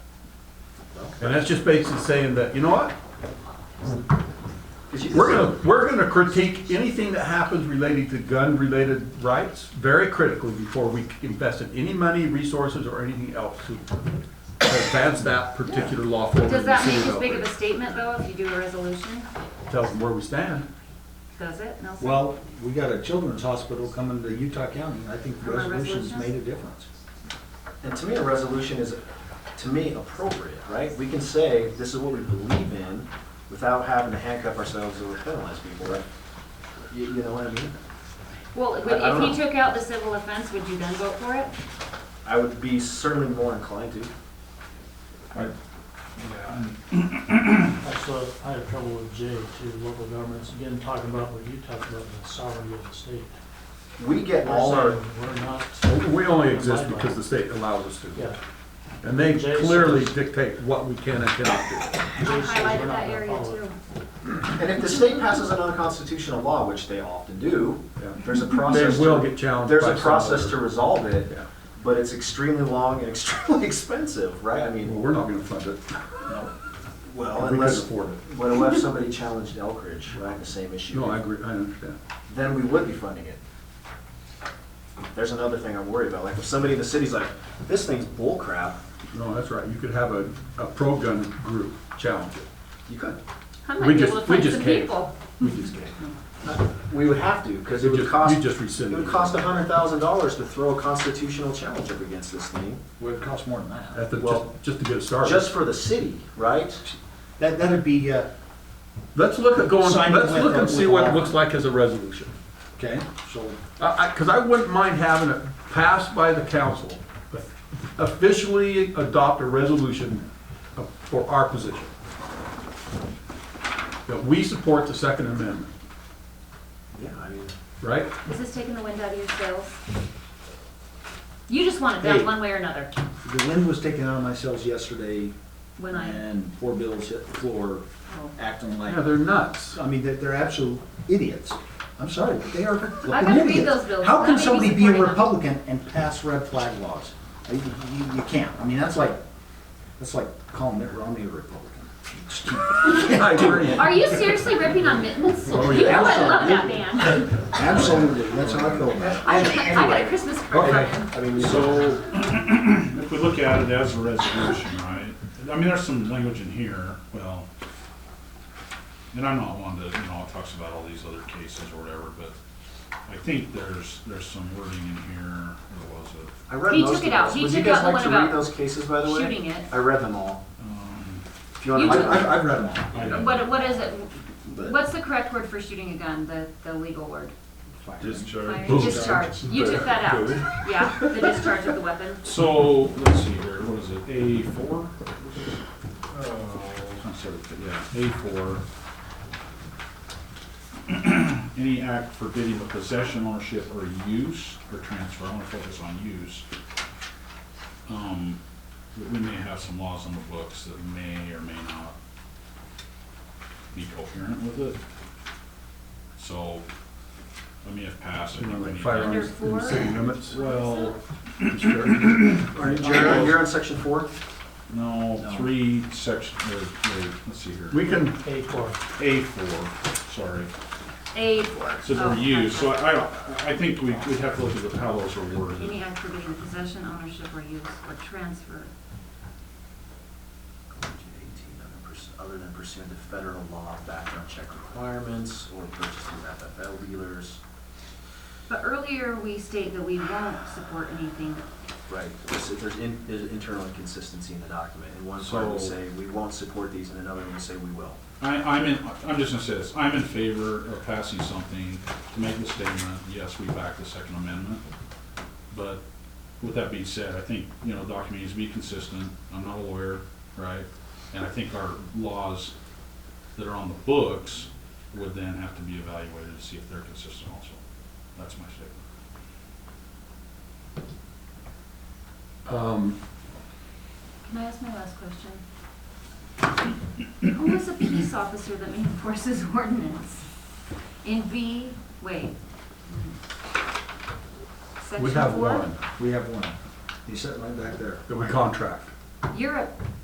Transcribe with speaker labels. Speaker 1: And that's just basically saying that, you know what? We're gonna, we're gonna critique anything that happens related to gun-related rights very critically before we invest in any money, resources, or anything else to advance that particular law forward. in
Speaker 2: Does
Speaker 1: the
Speaker 2: that
Speaker 1: city
Speaker 2: make as
Speaker 1: of
Speaker 2: big of a
Speaker 1: Elkhorn.
Speaker 2: statement though, if you do a resolution?
Speaker 1: Tells them where we stand.
Speaker 2: Does it? Nelson?
Speaker 3: Well, we got a children's hospital coming to Utah County, and I think the
Speaker 2: Am I
Speaker 3: resolution's
Speaker 2: resolution?
Speaker 3: made a difference.
Speaker 4: And to me, a resolution is, to me, appropriate, right? We can say, this is what we believe in, without having to handcuff ourselves or penalize people, right? You, you know what I mean?
Speaker 2: Well, if
Speaker 4: I- I don't
Speaker 2: if he
Speaker 4: know.
Speaker 2: took out the civil offense, would you then vote for it?
Speaker 4: I would be certainly more inclined to.
Speaker 5: That's what I had trouble with J too, local governments, again, talking about what you talked about, the sovereignty of the state.
Speaker 4: We get
Speaker 5: We're
Speaker 4: all our,
Speaker 5: saying We're not,
Speaker 1: We only exist because the state allows us to.
Speaker 5: yeah,
Speaker 1: And they clearly dictate what we can and cannot do.
Speaker 2: I
Speaker 5: Jason, we're
Speaker 2: highlighted
Speaker 5: not
Speaker 2: that
Speaker 5: gonna
Speaker 2: area
Speaker 5: follow
Speaker 2: too.
Speaker 4: and if the state passes an unconstitutional law, which they often do, there's a
Speaker 1: They
Speaker 4: process.
Speaker 1: will
Speaker 4: to-
Speaker 1: get challenged
Speaker 4: There's
Speaker 1: by
Speaker 4: a process to
Speaker 1: some other-
Speaker 4: resolve it,
Speaker 1: Yeah.
Speaker 4: but it's extremely long and extremely expensive, right? I
Speaker 1: Well,
Speaker 4: mean,
Speaker 1: we're not gonna fund it.
Speaker 4: well,
Speaker 1: We couldn't
Speaker 4: unless,
Speaker 1: afford it.
Speaker 4: what if somebody challenged Elk Ridge, right, the same issue?
Speaker 1: No, I agree, I understand.
Speaker 4: then we would be funding it. There's another thing I'm worried about, like if somebody in the city's like, this thing's bull crap,
Speaker 1: No, that's right. You could have a, a pro-gun group challenge it.
Speaker 4: you could.
Speaker 2: I
Speaker 1: We
Speaker 2: might be
Speaker 1: just-
Speaker 2: able to
Speaker 1: we
Speaker 2: find
Speaker 1: just
Speaker 2: some
Speaker 1: can't.
Speaker 2: people.
Speaker 1: We just can't.
Speaker 4: We would have to, because it
Speaker 1: You
Speaker 4: Hmm. would
Speaker 1: just-
Speaker 4: cost,
Speaker 1: you just
Speaker 4: it
Speaker 1: rescinded
Speaker 4: would
Speaker 1: it.
Speaker 4: cost a hundred thousand dollars to throw a constitutional challenge up against this thing,
Speaker 3: Well, it costs more than that.
Speaker 1: At the,
Speaker 4: Well,
Speaker 1: just, just to get it started.
Speaker 4: just for the city, right?
Speaker 3: That, that'd be, uh,
Speaker 1: Let's look at going,
Speaker 3: Sign it
Speaker 1: let's
Speaker 3: with
Speaker 1: look
Speaker 3: the-
Speaker 1: and see
Speaker 3: with
Speaker 1: what it
Speaker 3: all-
Speaker 1: looks like as a resolution.
Speaker 3: okay, so,
Speaker 1: I, I, cause I wouldn't mind having it passed by the council, but officially adopt a resolution for our position. That we support the Second Amendment,
Speaker 4: Yeah, I mean,
Speaker 1: right?
Speaker 2: Is this taking the wind out of your sails? You just want it done
Speaker 3: Hey.
Speaker 2: one way or another,
Speaker 3: the wind was taken out of my sails yesterday,
Speaker 2: when I,
Speaker 3: and poor Bill's hit the floor,
Speaker 2: oh.
Speaker 3: acting like,
Speaker 1: Yeah, they're nuts.
Speaker 3: I mean, they're, they're absolute idiots. I'm sorry, but they are
Speaker 2: I
Speaker 3: flipping
Speaker 2: gotta read
Speaker 3: idiots.
Speaker 2: those bills.
Speaker 3: How
Speaker 2: I
Speaker 3: can
Speaker 2: may be
Speaker 3: somebody be a
Speaker 2: supporting them.
Speaker 3: Republican and pass red flag laws? You, you- you can't, I mean, that's like, that's like calling Mitt Romney a Republican.
Speaker 1: I agree.
Speaker 2: Are you seriously ripping on mittens? You know
Speaker 1: Oh, yeah.
Speaker 2: I love that man.
Speaker 3: Absolutely, that's how I feel about it.
Speaker 2: I I got a Christmas card
Speaker 1: Okay.
Speaker 2: from him.
Speaker 4: I mean, we-
Speaker 6: So, if we look at it as a resolution, right, I mean, there's some language in here, well, and I'm not one to, you know, it talks about all these other cases or whatever, but I think there's, there's some wording in here, where was it?
Speaker 4: I read
Speaker 2: He
Speaker 4: most
Speaker 2: took
Speaker 4: of
Speaker 2: it out.
Speaker 4: those.
Speaker 2: He
Speaker 4: Would
Speaker 2: took
Speaker 4: you
Speaker 2: out
Speaker 4: guys
Speaker 2: the
Speaker 4: like
Speaker 2: one
Speaker 4: to read
Speaker 2: about
Speaker 4: those cases, by the way?
Speaker 2: Shooting it.
Speaker 4: I read them all.
Speaker 6: Um,
Speaker 4: If you want
Speaker 2: You
Speaker 4: to,
Speaker 2: took-
Speaker 3: I- I've, I've read them all.
Speaker 6: I-
Speaker 2: What, what is it?
Speaker 3: but-
Speaker 2: What's the correct word for shooting a gun, the, the legal word? Fire-
Speaker 1: Boom.
Speaker 2: Discharge. You took that out. Yeah, the discharge of the weapon.
Speaker 6: So, let's see here, what is it, A four? I'm sorry, yeah, A four. Any act forbidding the possession, ownership, or use, or transfer, I wanna focus on use. Um, we- we may have some laws on the books that may or may not be coherent with it. So, I mean, if passed, I
Speaker 1: You know,
Speaker 6: think
Speaker 1: like
Speaker 6: we need. to-
Speaker 2: Under
Speaker 1: firearms in
Speaker 2: four?
Speaker 1: the city limits.
Speaker 6: Well,
Speaker 4: Are you- Jared, you're on section four?
Speaker 6: No, three section, or, or, let's see here.
Speaker 1: We can
Speaker 5: A four.
Speaker 6: A four, sorry,
Speaker 2: A four.
Speaker 6: so
Speaker 2: Oh,
Speaker 6: they're used, so
Speaker 2: gotcha.
Speaker 6: I, I don't- I think we, we'd have to look at how those are worded.
Speaker 2: Any act forbidding the possession, ownership, or use, or transfer.
Speaker 4: Other than pursuant to federal law, background check requirements, or purchase through FFL dealers,
Speaker 2: But earlier, we state that we won't support anything.
Speaker 4: right? There's, there's in, there's internal inconsistency in the document. In one part we
Speaker 6: So-
Speaker 4: say, we won't support these, and another one we say, we will.
Speaker 6: I, I'm in, I'm just gonna say this, I'm in favor of passing something to make the statement, yes, we back the Second Amendment. But with that being said, I think, you know, document needs to be consistent, I'm not a lawyer, right? And I think our laws that are on the books would then have to be evaluated to see if they're consistent also. That's my statement.
Speaker 1: Um,
Speaker 2: Can I ask my last question? Who is a peace officer that enforces ordinance? In B, wait.
Speaker 1: we
Speaker 2: Section
Speaker 1: have
Speaker 2: four?
Speaker 1: one
Speaker 3: We have one. He's sitting right back there.
Speaker 1: that we contract.
Speaker 2: You're a